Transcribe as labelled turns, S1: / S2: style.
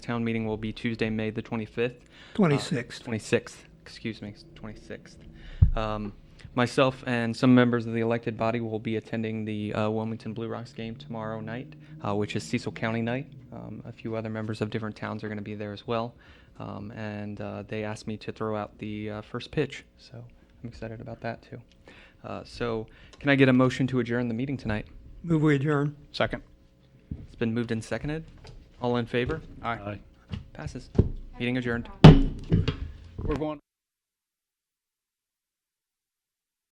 S1: Town meeting will be Tuesday, May the 25th.
S2: Twenty-sixth.
S1: 26th, excuse me, 26th. Um, Myself and some members of the elected body will be attending the uh, Wilmington Blue Rocks game tomorrow night, uh, which is Cecil County night. Um, A few other members of different towns are going to be there as well. Um, And uh, they asked me to throw out the uh, first pitch, so I'm excited about that too. Uh, So can I get a motion to adjourn the meeting tonight?
S2: Move we adjourn.
S3: Second.
S1: It's been moved and seconded. All in favor?
S3: Aye.
S1: Passes. Meeting adjourned.
S3: We're going.